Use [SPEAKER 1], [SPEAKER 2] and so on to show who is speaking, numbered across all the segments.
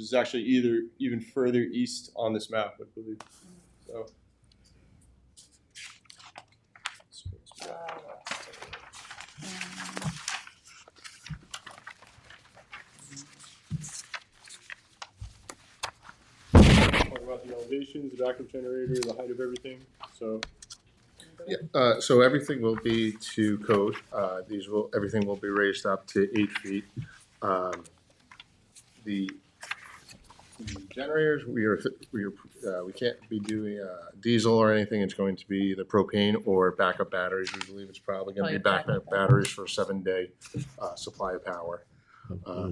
[SPEAKER 1] which is actually either even further east on this map, I believe. So. Talk about the elevations, the backup generator, the height of everything, so.
[SPEAKER 2] Yeah, uh, so everything will be to code. Uh, these will, everything will be raised up to eight feet. Um, The the generators, we are, we are, uh, we can't be doing, uh, diesel or anything. It's going to be the propane or backup batteries. We believe it's probably gonna be
[SPEAKER 3] Probably backup
[SPEAKER 2] backup batteries for a seven-day, uh, supply of power.
[SPEAKER 4] Hmm.
[SPEAKER 2] Uh,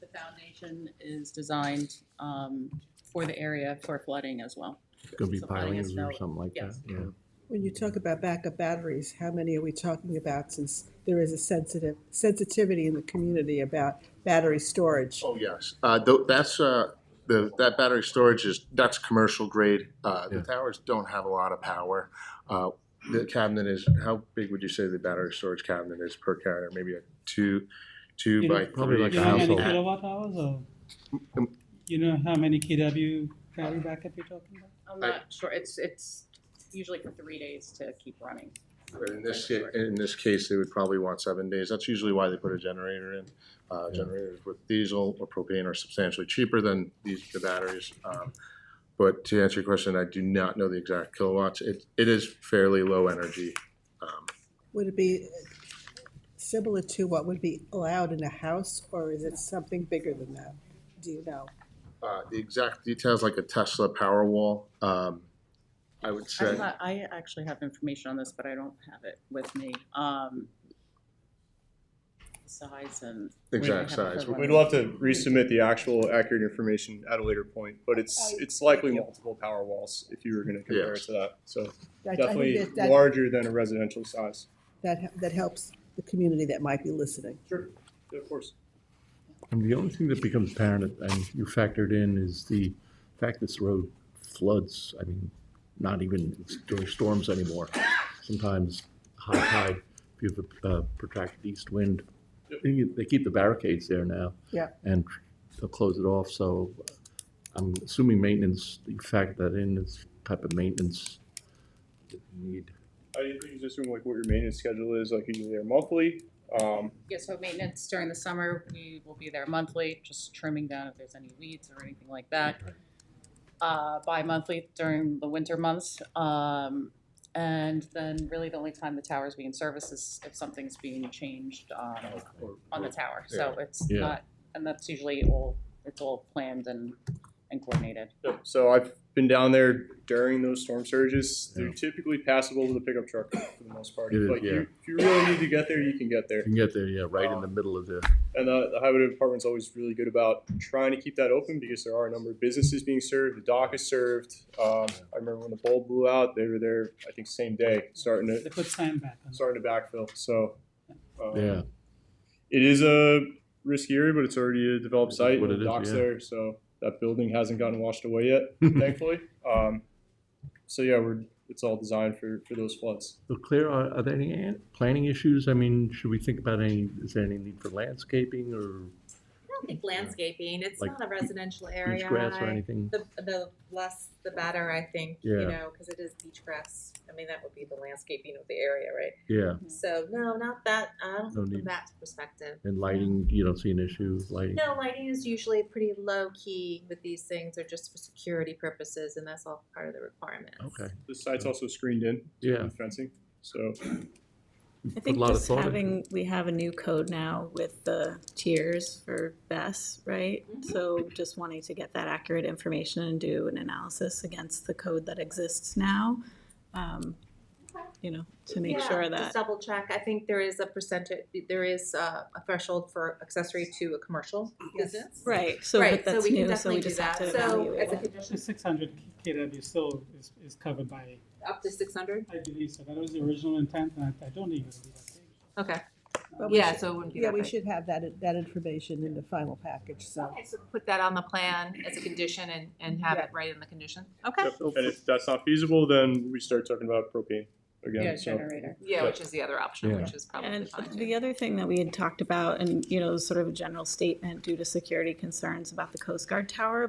[SPEAKER 3] The foundation is designed um, for the area for flooding as well.
[SPEAKER 4] Could be
[SPEAKER 3] So flooding is
[SPEAKER 4] pilings or
[SPEAKER 3] no-
[SPEAKER 4] something like that,
[SPEAKER 3] yes.
[SPEAKER 4] yeah.
[SPEAKER 5] When you talk about backup batteries, how many are we talking about since there is a sensitive, sensitivity in the community about battery storage?
[SPEAKER 2] Oh, yes. Uh, tho- that's, uh, the, that battery storage is, that's commercial grade. Uh, the
[SPEAKER 4] Yeah.
[SPEAKER 2] towers don't have a lot of power. Uh, the cabinet is, how big would you say the battery storage cabinet is per cabinet? Maybe a two, two
[SPEAKER 6] You
[SPEAKER 2] by
[SPEAKER 6] know,
[SPEAKER 4] probably
[SPEAKER 2] three
[SPEAKER 4] like a
[SPEAKER 6] You know how many
[SPEAKER 4] household.
[SPEAKER 6] kilowatt hours or?
[SPEAKER 2] Um,
[SPEAKER 6] You know how many KW battery backup you're talking about?
[SPEAKER 3] I'm
[SPEAKER 2] I-
[SPEAKER 3] not sure, it's, it's usually for three days to keep running.
[SPEAKER 2] But in this, ca- in this case, they would probably want seven days. That's usually why they put a generator in. Uh,
[SPEAKER 4] Yeah.
[SPEAKER 2] generators with diesel or propane are substantially cheaper than these, the batteries. Um, But to answer your question, I do not know the exact kilowatts. It, it is fairly low energy. Um,
[SPEAKER 5] Would it be similar to what would be allowed in a house, or is it something bigger than that? Do you know?
[SPEAKER 2] uh, the exact details, like a Tesla Powerwall. Um, I would
[SPEAKER 3] I'm
[SPEAKER 2] say,
[SPEAKER 3] not- I actually have information on this, but I don't have it with me. Um, Size and. we might
[SPEAKER 2] exact
[SPEAKER 3] have to
[SPEAKER 2] size.
[SPEAKER 3] provide-
[SPEAKER 1] We'd love to resubmit the actual accurate information at a later point, but
[SPEAKER 5] Oh,
[SPEAKER 1] it's, it's likely multiple power walls if you were gonna compare it to that, so.
[SPEAKER 5] I- I think
[SPEAKER 1] Definitely
[SPEAKER 5] that- that-
[SPEAKER 1] larger than a residential size.
[SPEAKER 5] That, that helps the community that might be listening.
[SPEAKER 1] Sure, of course.
[SPEAKER 4] And the only thing that becomes apparent, and you factored in, is the fact this road floods, I mean, not even during storms anymore. Sometimes high tide, if you have a uh, protracted east wind, they they keep the barricades there now.
[SPEAKER 5] Yeah.
[SPEAKER 4] And they'll close it off, so uh, I'm assuming maintenance, you factor that in, is type of maintenance that you need.
[SPEAKER 1] I think you just assume like what your maintenance schedule is, like usually they're monthly. Um,
[SPEAKER 3] Yeah, so maintenance during the summer, we will be there monthly, just trimming down if there's any weeds or anything like that. Uh, bi-monthly during the winter months, um, and then really the only time the tower's being serviced is if something's being changed, um,
[SPEAKER 2] or-
[SPEAKER 3] on the tower, so it's
[SPEAKER 4] Yeah.
[SPEAKER 3] not, and that's usually all, it's all planned and, and coordinated.
[SPEAKER 1] yeah, so I've been down there during those storm surges. They're
[SPEAKER 4] Yeah.
[SPEAKER 1] typically passable with a pickup truck for the most part.
[SPEAKER 4] It is,
[SPEAKER 1] Like
[SPEAKER 4] yeah.
[SPEAKER 1] you, if you really need to get there, you can get there.
[SPEAKER 4] You can get there, yeah, right in the middle of the,
[SPEAKER 1] And the, the highway department's always really good about trying to keep that open because there are a number of businesses being served. The dock is served. Um, I remember when the bulb blew out, they were there, I think, same day, starting
[SPEAKER 6] They
[SPEAKER 1] to
[SPEAKER 6] put sand back on.
[SPEAKER 1] starting to backfill. So um,
[SPEAKER 4] yeah,
[SPEAKER 1] it is a risky area, but it's already a developed
[SPEAKER 4] That's
[SPEAKER 1] site.
[SPEAKER 4] what
[SPEAKER 1] and the
[SPEAKER 4] it is,
[SPEAKER 1] dock's
[SPEAKER 4] yeah.
[SPEAKER 1] there, so that building hasn't gotten washed away yet, thankfully. Um, so yeah, we're it's all designed for for those floods.
[SPEAKER 4] So Claire, are, are there any an- planning issues? I mean, should we think about any, is there any need for landscaping or
[SPEAKER 7] I don't think landscaping, it's
[SPEAKER 4] Like
[SPEAKER 7] not a residential area.
[SPEAKER 4] beach grass or
[SPEAKER 7] I-
[SPEAKER 4] anything?
[SPEAKER 7] The, the less, the better, I think, you
[SPEAKER 4] Yeah.
[SPEAKER 7] know, because it is beach grass. I mean, that would be the landscaping of the area, right?
[SPEAKER 4] Yeah,
[SPEAKER 7] So, no, not that, I don't
[SPEAKER 4] No
[SPEAKER 7] think from
[SPEAKER 4] need.
[SPEAKER 7] that perspective.
[SPEAKER 4] and lighting, you don't see an issue with lighting?
[SPEAKER 7] No, lighting is usually pretty low key with these things, they're just for security purposes, and that's all part of the requiremements.
[SPEAKER 4] Okay,
[SPEAKER 1] The site's also screened in
[SPEAKER 4] yeah.
[SPEAKER 1] with fencing, so
[SPEAKER 8] I
[SPEAKER 4] Put a
[SPEAKER 8] think
[SPEAKER 4] lot of
[SPEAKER 8] just
[SPEAKER 4] thought into
[SPEAKER 8] having, we have a new code now with the tiers for vests, right?
[SPEAKER 7] Mhm.
[SPEAKER 8] So just wanting to get that accurate information and do an analysis against the code that exists now. um, You know, to make
[SPEAKER 7] Yeah,
[SPEAKER 8] sure
[SPEAKER 7] Just
[SPEAKER 8] that,
[SPEAKER 7] double check, I think there is a percentage, there is uh, a threshold for accessory to a commercial
[SPEAKER 5] Yes.
[SPEAKER 7] business.
[SPEAKER 8] right, so
[SPEAKER 7] Right,
[SPEAKER 8] but
[SPEAKER 7] so
[SPEAKER 8] that's
[SPEAKER 7] we can
[SPEAKER 8] new, so
[SPEAKER 7] definitely
[SPEAKER 8] we
[SPEAKER 7] do
[SPEAKER 8] just have to
[SPEAKER 7] that. So
[SPEAKER 8] evaluate
[SPEAKER 7] as a
[SPEAKER 8] it.
[SPEAKER 7] condition,
[SPEAKER 6] Six hundred KW still is, is covered by,
[SPEAKER 7] up to six hundred,
[SPEAKER 6] I believe, so that was the original intent, and I- I don't even believe that.
[SPEAKER 7] okay,
[SPEAKER 5] But we
[SPEAKER 7] yeah,
[SPEAKER 5] should-
[SPEAKER 7] so it wouldn't be that
[SPEAKER 5] Yeah, we
[SPEAKER 7] big.
[SPEAKER 5] should have that, that information in the final package, so.
[SPEAKER 7] Okay, so put that on the plan as a condition and, and have it right in the condition, okay?
[SPEAKER 1] Yep, And if that's not feasible, then we start talking about propane. again.
[SPEAKER 3] yeah,
[SPEAKER 1] so-
[SPEAKER 3] generator.
[SPEAKER 7] Yeah, which is the other option,
[SPEAKER 4] Yeah.
[SPEAKER 7] which is probably
[SPEAKER 8] And
[SPEAKER 7] fine. too.
[SPEAKER 8] the other thing that we had talked about, and, you know, sort of a general statement due to security concerns about the Coast Guard Tower,